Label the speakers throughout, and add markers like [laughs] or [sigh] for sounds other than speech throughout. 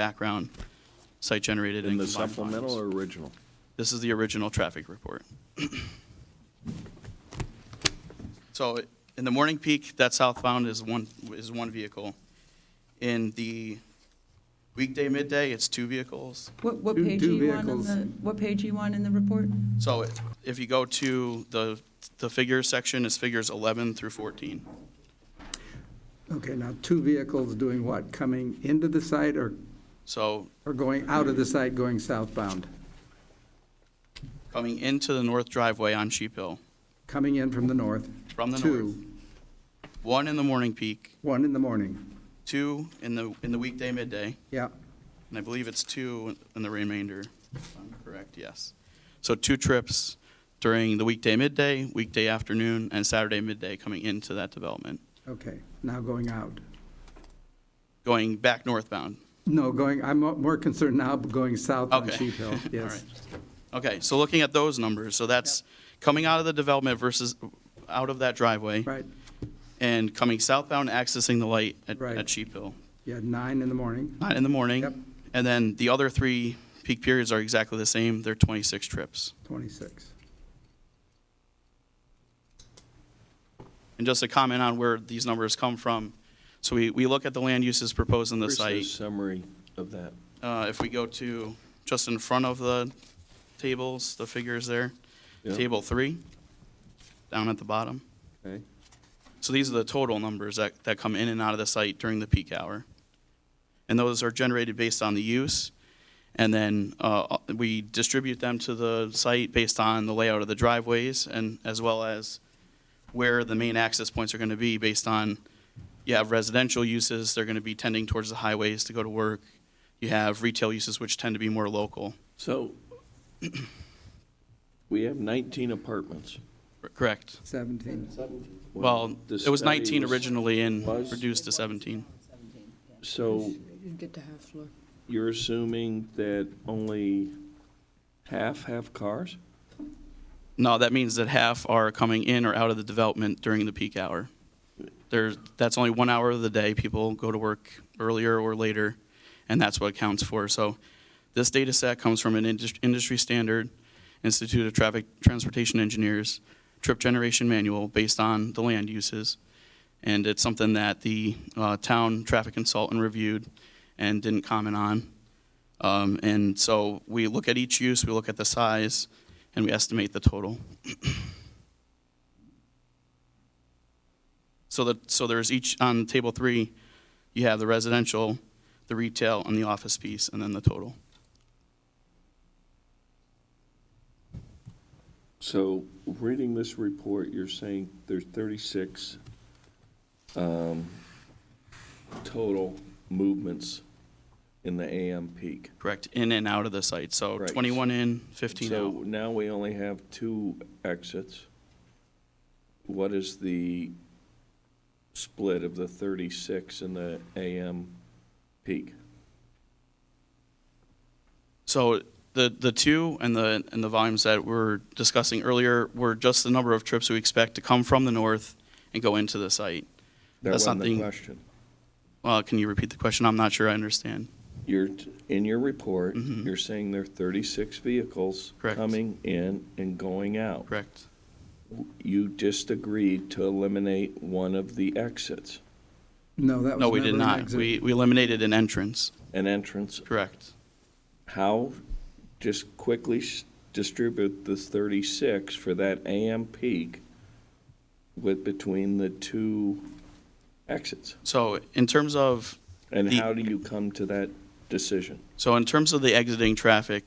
Speaker 1: background, site generated and
Speaker 2: In the
Speaker 1: combined volumes.
Speaker 2: supplemental or original?
Speaker 1: This is the original traffic report. So in the morning peak, that southbound is one, is one vehicle. In the weekday midday, it's two vehicles.
Speaker 3: What, what
Speaker 4: Two-
Speaker 3: page are
Speaker 4: two
Speaker 3: you on in
Speaker 4: vehicles.
Speaker 3: the, what page are you on in the report?
Speaker 1: So it- if you go to the, the figures section, is figures 11 through 14.
Speaker 4: Okay, now, two vehicles doing what? Coming into the site or,
Speaker 1: So
Speaker 4: or going out of the site, going southbound?
Speaker 1: coming into the north driveway on Sheep Hill,
Speaker 4: Coming in from the north?
Speaker 1: From the north.
Speaker 4: Two,
Speaker 1: one in the morning peak,
Speaker 4: one in the morning.
Speaker 1: two in the, in the weekday midday,
Speaker 4: Yeah,
Speaker 1: And I believe it's two in the remainder, if I'm correct, yes. So two trips during the weekday midday, weekday afternoon, and Saturday midday coming into that development,
Speaker 4: okay. Now going out.
Speaker 1: going back northbound.
Speaker 4: No, going, I'm mo- more concerned now going south on
Speaker 1: Okay.
Speaker 4: Sheep
Speaker 1: [laughs]
Speaker 4: Hill.
Speaker 1: All
Speaker 4: Yes.
Speaker 1: Okay, so looking at those numbers, so that's coming out of the development versus out of that driveway
Speaker 4: Right,
Speaker 1: and coming southbound, accessing the light at,
Speaker 4: Right.
Speaker 1: at Sheep Hill,
Speaker 4: yeah, nine in the morning.
Speaker 1: not in the
Speaker 4: Yep.
Speaker 1: morning. And then the other three peak periods are exactly the same, they're 26 trips.
Speaker 4: 26.
Speaker 1: And just a comment on where these numbers come from. So we, we look at the land uses proposed in the
Speaker 2: Where's
Speaker 1: site.
Speaker 2: Summary of that.
Speaker 1: Uh, If we go to, just in front of the tables, the figures there,
Speaker 2: Yeah.
Speaker 1: table three, down at the bottom.
Speaker 2: Okay.
Speaker 1: So these are the total numbers that, that come in and out of the site during the peak hour. And those are generated based on the use. And then uh, we distribute them to the site based on the layout of the driveways and as well as where the main access points are going to be based on, you have residential uses, they're going to be tending towards the highways to go to work. You have retail uses which tend to be more local.
Speaker 2: So [clears throat] we have 19 apartments.
Speaker 1: Correct.
Speaker 4: 17.
Speaker 1: Well,
Speaker 2: the
Speaker 1: it was
Speaker 2: study
Speaker 1: 19 originally and
Speaker 2: was-
Speaker 1: reduced to 17.
Speaker 2: So
Speaker 5: Didn't get to half floor.
Speaker 2: you're assuming that only half have cars?
Speaker 1: No, that means that half are coming in or out of the development during the peak hour. There's, that's only one hour of the day. People go to work earlier or later, and that's what it counts for. So this data set comes from an indus- industry standard, Institute of Traffic Transportation Engineers, trip generation manual based on the land uses. And it's something that the uh, town traffic consultant reviewed and didn't comment on. Um, And so we look at each use, we look at the size, and we estimate the total. [clears throat] So that, so there's each, on table three, you have the residential, the retail, and the office piece, and then the total.
Speaker 2: So reading this report, you're saying there's 36 um, total movements in the AM peak.
Speaker 1: Correct, in and out of the site, so
Speaker 2: Right.
Speaker 1: 21 in, 15
Speaker 2: So
Speaker 1: out.
Speaker 2: now we only have two exits. What is the split of the 36 and the AM peak?
Speaker 1: So the, the two and the, and the volumes that we're discussing earlier were just the number of trips we expect to come from the north and go into the site.
Speaker 2: That
Speaker 1: That's
Speaker 2: wasn't
Speaker 1: not
Speaker 2: the
Speaker 1: the-
Speaker 2: question.
Speaker 1: Uh, Can you repeat the question? I'm not sure I understand.
Speaker 2: You're, in your report,
Speaker 1: Mhm.
Speaker 2: you're saying there are 36 vehicles
Speaker 1: Correct.
Speaker 2: coming in and going out.
Speaker 1: Correct,
Speaker 2: You just agreed to eliminate one of the exits,
Speaker 4: No, that was never an exit.
Speaker 1: no, we did not. We, we eliminated an entrance,
Speaker 2: an entrance.
Speaker 1: correct.
Speaker 2: How, just quickly s- distribute the 36 for that AM peak with, between the two exits?
Speaker 1: So in terms of
Speaker 2: And
Speaker 1: The-
Speaker 2: how do you come to that decision?
Speaker 1: So in terms of the exiting traffic,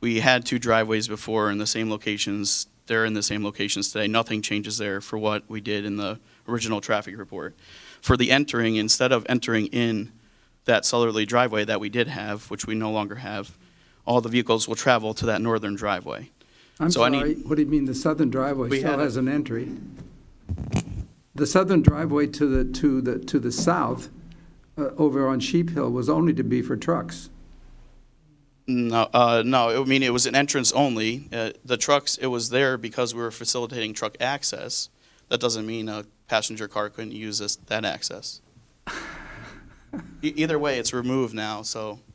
Speaker 1: we had two driveways before in the same locations. They're in the same locations today. Nothing changes there for what we did in the original traffic report. For the entering, instead of entering in that southerly driveway that we did have, which we no longer have, all the vehicles will travel to that northern driveway.
Speaker 4: I'm
Speaker 1: So I need-
Speaker 4: sorry, what do you mean, the southern
Speaker 1: We
Speaker 4: driveway
Speaker 1: had
Speaker 4: still
Speaker 1: a-
Speaker 4: has an entry? The southern driveway to the, to the, to the south, uh, over on Sheep Hill, was only to be for trucks.
Speaker 1: No, uh, no, I mean, it was an entrance only. Uh, the trucks, it was there because we were facilitating truck access. That doesn't mean a passenger car couldn't use this, that access. E- Either way, it's removed now, so